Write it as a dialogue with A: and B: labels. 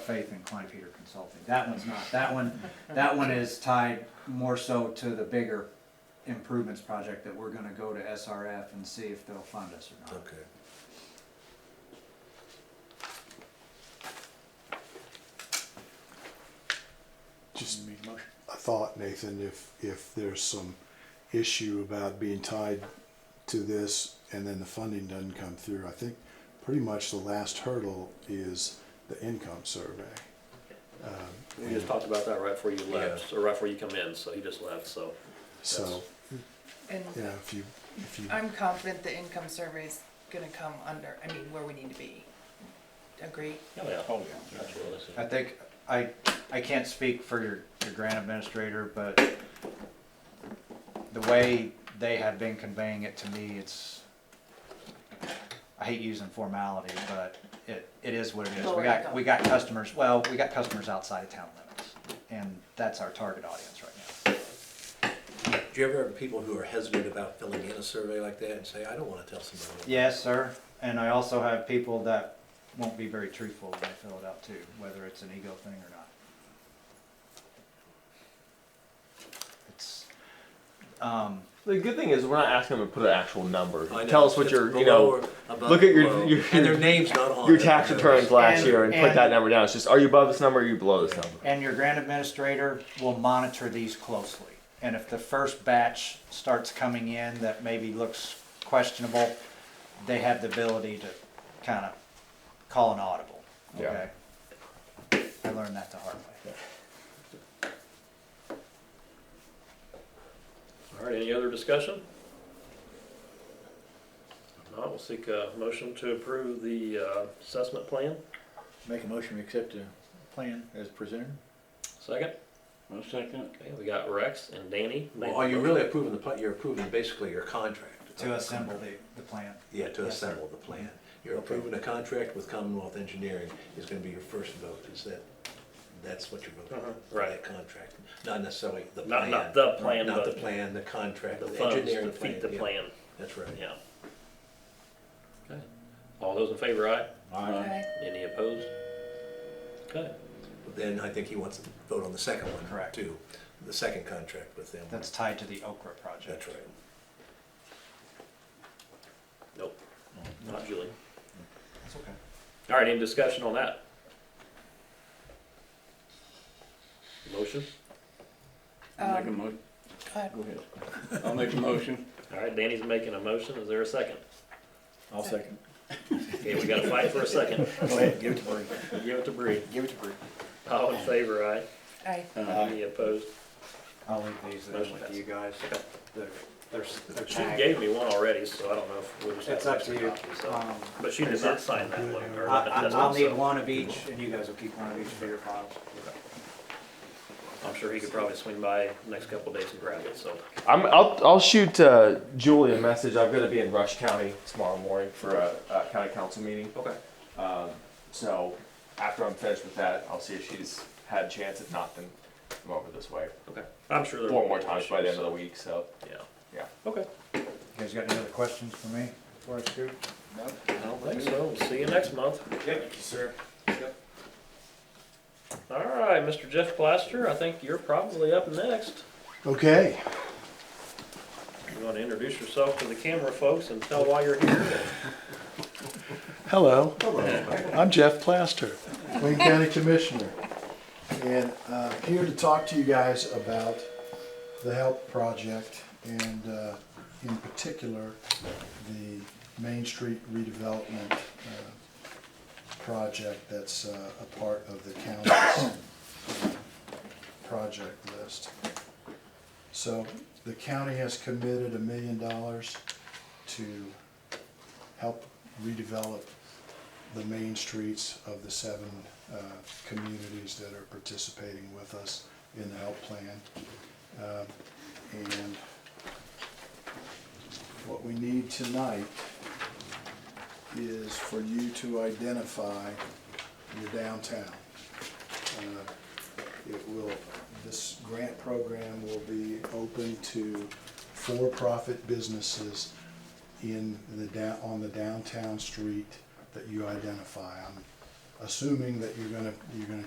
A: faith in Klein Peter Consulting. That one's not, that one, that one is tied more so to the bigger improvements project that we're gonna go to SRF and see if they'll fund us or not.
B: Okay.
C: Just a thought, Nathan, if, if there's some issue about being tied to this and then the funding doesn't come through, I think pretty much the last hurdle is the income survey. Um,
D: We just talked about that right before you left,
B: Yeah.
D: or right before you come in, so he just left, so.
C: So,
E: And
C: yeah, if you, if you,
E: I'm confident the income survey's gonna come under, I mean, where we need to be. Agree?
D: Oh, yeah.
F: Oh,
D: Absolutely.
A: I think, I, I can't speak for your, your grant administrator, but the way they have been conveying it to me, it's, I hate using formality, but it, it is what it is. We got, we got customers, well, we got customers outside of town limits, and that's our target audience right now.
B: Do you ever have people who are hesitant about filling in a survey like that and say, I don't want to tell somebody?
A: Yes, sir, and I also have people that won't be very truthful when they fill it out too, whether it's an ego thing or not. It's, um,
G: The good thing is we're not asking them to put an actual number.
B: I know,
G: Tell us what
B: it's
G: your,
B: below
G: you know,
B: or above
G: look at your-
B: below.
G: your-
B: And their name's not on
G: your
B: it.
G: tax returns last
A: And-
G: year and, put
A: and-
G: that number down. It's just, are you above this number or are you below this number?
A: and your grant administrator will monitor these closely. And if the first batch starts coming in that maybe looks questionable, they have the ability to kind of call an audible,
G: Yeah.
A: okay? I learned that the hard way.
D: All right, any other discussion? If not, we'll seek a motion to approve the uh, assessment plan.
F: Make a motion to accept the plan as presented.
D: Second,
F: One second.
D: okay, we got Rex and Danny. made
B: Well, are
D: the
B: you
D: motion.
B: really approving the plan? You're approving basically your contract.
A: To assemble the, the plan.
B: Yeah, to
A: Yes, sir.
B: assemble the plan. You're approving a contract with Commonwealth Engineering is gonna be your first vote, is that, that's what you're voting
D: Uh-huh,
B: for,
D: right.
B: that contract. Not necessarily the
D: Not-
B: plan.
D: not the plan,
B: Not the
D: but
B: plan, the contract,
D: The
B: the
D: funds
B: engineering
D: to
B: plan.
D: feed the
B: yeah.
D: plan,
B: That's right.
D: yeah. Okay, all those in favor, aye?
E: Okay.
D: Any opposed? Okay,
B: Then I think he wants to vote on the second one.
A: Correct.
B: Too, the second contract with them.
A: That's tied to the Okra project.
B: That's right.
D: nope, not Julie.
A: That's okay.
D: All right, any discussion on that? Motion?
F: I'll make a
E: Um,
F: motion.
E: go ahead.
F: Go ahead. I'll make a motion.
D: All right, Danny's making a motion, is there a second?
F: I'll second.
D: Okay, we gotta fight for a second.
F: Go ahead, give it to Bree.
D: Give it to Bree.
F: Give it to Bree.
D: All in favor, aye?
E: Aye.
D: Any opposed?
A: I'll leave these there
D: Motion
A: with
D: passed.
A: you guys. They're, they're, they're
D: She
A: tagged.
D: gave me one already, so I don't know if we'll just have
A: It's up to
D: extra
A: you.
D: copies, so.
A: Um,
D: But she did not sign that one.
A: I,
D: or
A: I-
D: that's
A: I'll need
D: also-
A: one of each and you guys will keep one of each for your files.
D: I'm sure he could probably swing by next couple of days and grab it, so.
G: I'm, I'll, I'll shoot uh, Julie a message. I'm going to be in Rush County tomorrow morning for a, a county council meeting.
D: Okay.
G: So after I'm finished with that, I'll see if she's had a chance. If not, then I'm over this way
D: Okay, I'm sure there.
G: four
D: won't
G: more
D: be
G: times by the end
D: issues,
G: of the week. So
D: so, Yeah.
G: yeah.
D: Okay.
A: You guys got any other questions for me before I scoot?
D: I don't think so. We'll See you next month.
A: Yep.
D: All right, Mr. Jeff Plaster, I think you're probably up next.
C: okay.
D: You want to introduce yourself to the camera folks and tell why you're here?
C: Hello,
B: Hello.
C: I'm Jeff Plaster, Wayne County Commissioner. And uh, here to talk to you guys about the HELP project and uh, in particular, the Main Street redevelopment uh, project that's uh, a part of the county's project list. So the county has committed a million dollars to help redevelop the main streets of the seven uh, communities that are participating with us in the help plan. Um, And what we need tonight is for you to identify your downtown. Uh, It will, this grant program will be open to for-profit businesses in the down, on the downtown street that you identify. I'm assuming that you're gonna, you're gonna